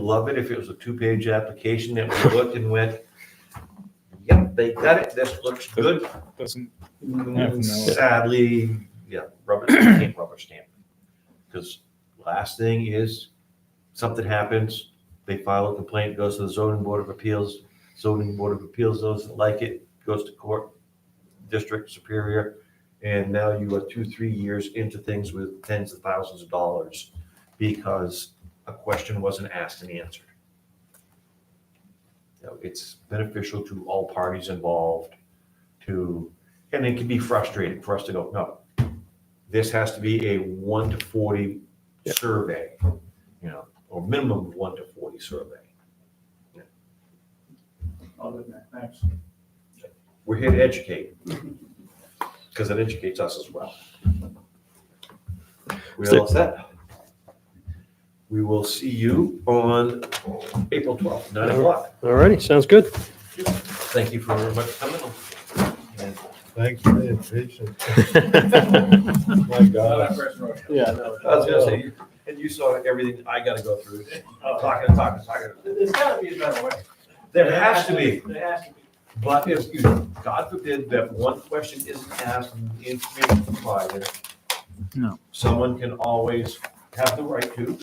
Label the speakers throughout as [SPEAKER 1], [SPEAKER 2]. [SPEAKER 1] Love it if it was a two-page application that we looked and went, yep, they got it, this looks good.
[SPEAKER 2] Doesn't,
[SPEAKER 1] Mm, Sadly, yeah, rubber, you can't rubber stamp. Because last thing is, something happens, they file a complaint, goes to the zoning board of appeals, zoning board of appeals doesn't like it, goes to court, district superior, and now you are two, three years into things with tens of thousands of dollars because a question wasn't asked and answered. You know, It's beneficial to all parties involved to and it can be frustrating for us to go, no, this has to be a one to forty
[SPEAKER 2] Yeah.
[SPEAKER 1] survey, you know, or minimum of one to forty survey.
[SPEAKER 3] Other than that, thanks.
[SPEAKER 1] We're here to educate, because it educates us as well. We are all set. We will see you on April twelfth, nine o'clock.
[SPEAKER 4] All righty, sounds good.
[SPEAKER 1] Thank you for everybody coming. And
[SPEAKER 5] Thanks for being patient. My God.
[SPEAKER 2] yeah,
[SPEAKER 1] I was gonna say, and you saw everything I gotta go through, talking, and talking, and talking.
[SPEAKER 3] There's gotta be a better way.
[SPEAKER 1] There has to be.
[SPEAKER 3] There has to be.
[SPEAKER 1] But if you, God forbid that one question isn't asked and the information provided.
[SPEAKER 2] No.
[SPEAKER 1] Someone can always have the right to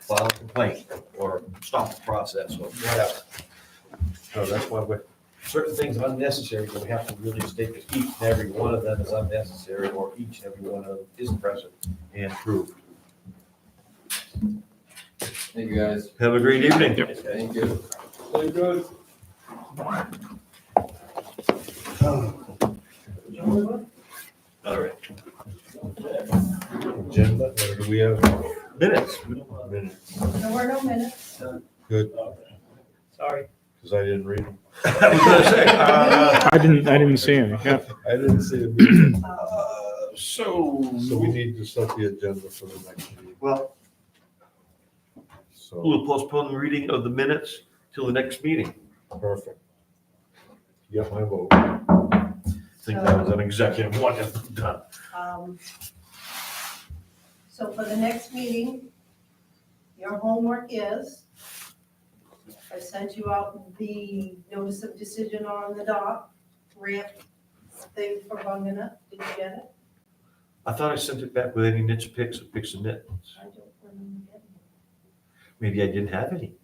[SPEAKER 1] file a complaint or stop the process or whatever. So that's why we're, certain things are unnecessary, but we have to really state that each and every one of them is unnecessary or each and every one of them is present and proved.
[SPEAKER 6] Thank you, guys.
[SPEAKER 1] Have a great evening.
[SPEAKER 6] Thank you.
[SPEAKER 3] Very good.
[SPEAKER 1] All right.
[SPEAKER 5] Agenda, or do we have?
[SPEAKER 1] Minutes.
[SPEAKER 5] Because
[SPEAKER 7] There were no minutes.
[SPEAKER 3] Sorry.
[SPEAKER 5] I didn't read them.
[SPEAKER 1] I was gonna say, uh,
[SPEAKER 2] I didn't, I didn't see any, yeah.
[SPEAKER 5] I didn't see a meeting.
[SPEAKER 1] So.
[SPEAKER 5] So we need to set the agenda for the next meeting.
[SPEAKER 1] Well,
[SPEAKER 5] So,
[SPEAKER 1] We'll postpone the reading of the minutes till the next meeting.
[SPEAKER 5] perfect. Get my vote.
[SPEAKER 1] I think that was an executive one, that's done.
[SPEAKER 7] Um, So for the next meeting, your homework is, I sent you out the notice of decision on the dock ramp thing for Bungana. Did you get it?
[SPEAKER 1] I thought I sent it back with any nits, picks, or picks and nits.
[SPEAKER 7] I don't remember getting it.
[SPEAKER 1] Maybe I didn't have any.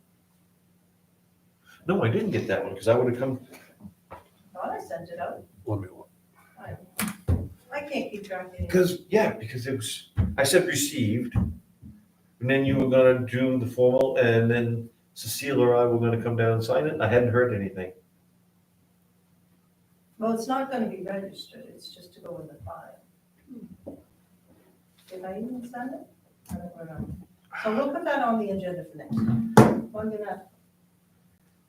[SPEAKER 1] No, I didn't get that one, because I would have come,
[SPEAKER 7] Thought I sent it out.
[SPEAKER 5] Let me.
[SPEAKER 7] I I can't keep track of it.
[SPEAKER 1] because, yeah, because it was, uh, I said received. And then you were gonna do the formal, and then Cecile or I were gonna come down and sign it, and I hadn't heard anything.
[SPEAKER 7] Well, it's not going to be registered. It's just to go in the file. Did I even send it? I don't remember. So we'll put that on the agenda for next time. Bungana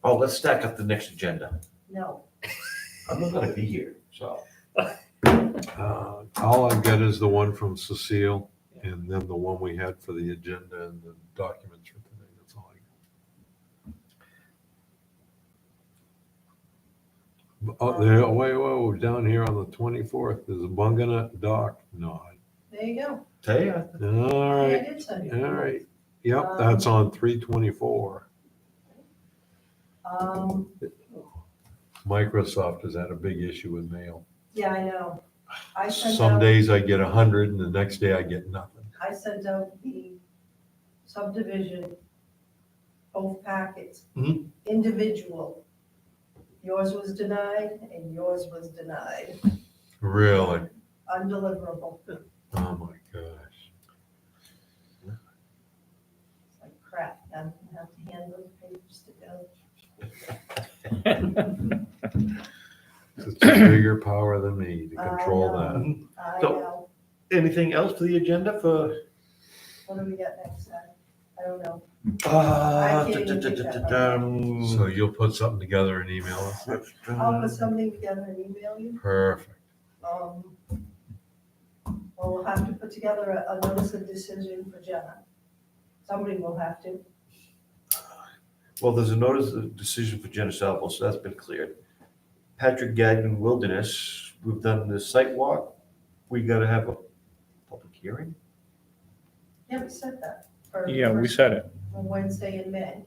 [SPEAKER 1] Oh, let's stack up the next agenda.
[SPEAKER 7] No,
[SPEAKER 1] I'm not gonna be here, so.
[SPEAKER 5] Uh, All I've got is the one from Cecile and then the one we had for the agenda and the documents for today. That's all I got. Oh, there, wait, whoa, down here on the twenty-fourth, there's a Bunganut dock nod.
[SPEAKER 7] there you go.
[SPEAKER 1] Tell ya.
[SPEAKER 5] All
[SPEAKER 7] I
[SPEAKER 5] right,
[SPEAKER 7] did send you.
[SPEAKER 5] all right. Yep, that's on three twenty-four.
[SPEAKER 7] Um,
[SPEAKER 5] Microsoft has had a big issue with mail.
[SPEAKER 7] yeah, I know. I sent
[SPEAKER 5] Some
[SPEAKER 7] out,
[SPEAKER 5] days I get a hundred and the next day I get nothing.
[SPEAKER 7] I sent out the subdivision, both packets,
[SPEAKER 5] Mm-hmm.
[SPEAKER 1] Mhm.
[SPEAKER 7] individual. Yours was denied and yours was denied,
[SPEAKER 5] Really?
[SPEAKER 7] undeliverable. It's
[SPEAKER 5] Oh, my gosh.
[SPEAKER 7] like crap, I'm gonna have to hand those papers to Bill.
[SPEAKER 5] It's a bigger power than me to
[SPEAKER 7] I
[SPEAKER 5] control
[SPEAKER 7] know.
[SPEAKER 5] that.
[SPEAKER 7] I
[SPEAKER 1] So-
[SPEAKER 7] know,
[SPEAKER 1] Mm-hmm. Anything else to the agenda for?
[SPEAKER 7] what do we got next time? I don't know.
[SPEAKER 1] Uh,
[SPEAKER 7] I can't even
[SPEAKER 1] da- da-
[SPEAKER 7] think
[SPEAKER 1] da-
[SPEAKER 7] that
[SPEAKER 1] da- dum.
[SPEAKER 5] So you'll put something together and email us?
[SPEAKER 2] Uh,
[SPEAKER 7] I'll put something together and email you.
[SPEAKER 5] Perfect.
[SPEAKER 7] um, Well, we'll have to put together a, a notice of decision for Jenna. Somebody will have to.
[SPEAKER 1] Well, there's a notice of decision for Jenna Salvo, so that's been cleared. Patrick Gagnon Wilderness, we've done the site walk. We gotta have a public hearing.
[SPEAKER 7] Yeah, we said that. for-
[SPEAKER 2] Yeah, we
[SPEAKER 7] for-
[SPEAKER 2] said it.
[SPEAKER 7] for on Wednesday in May.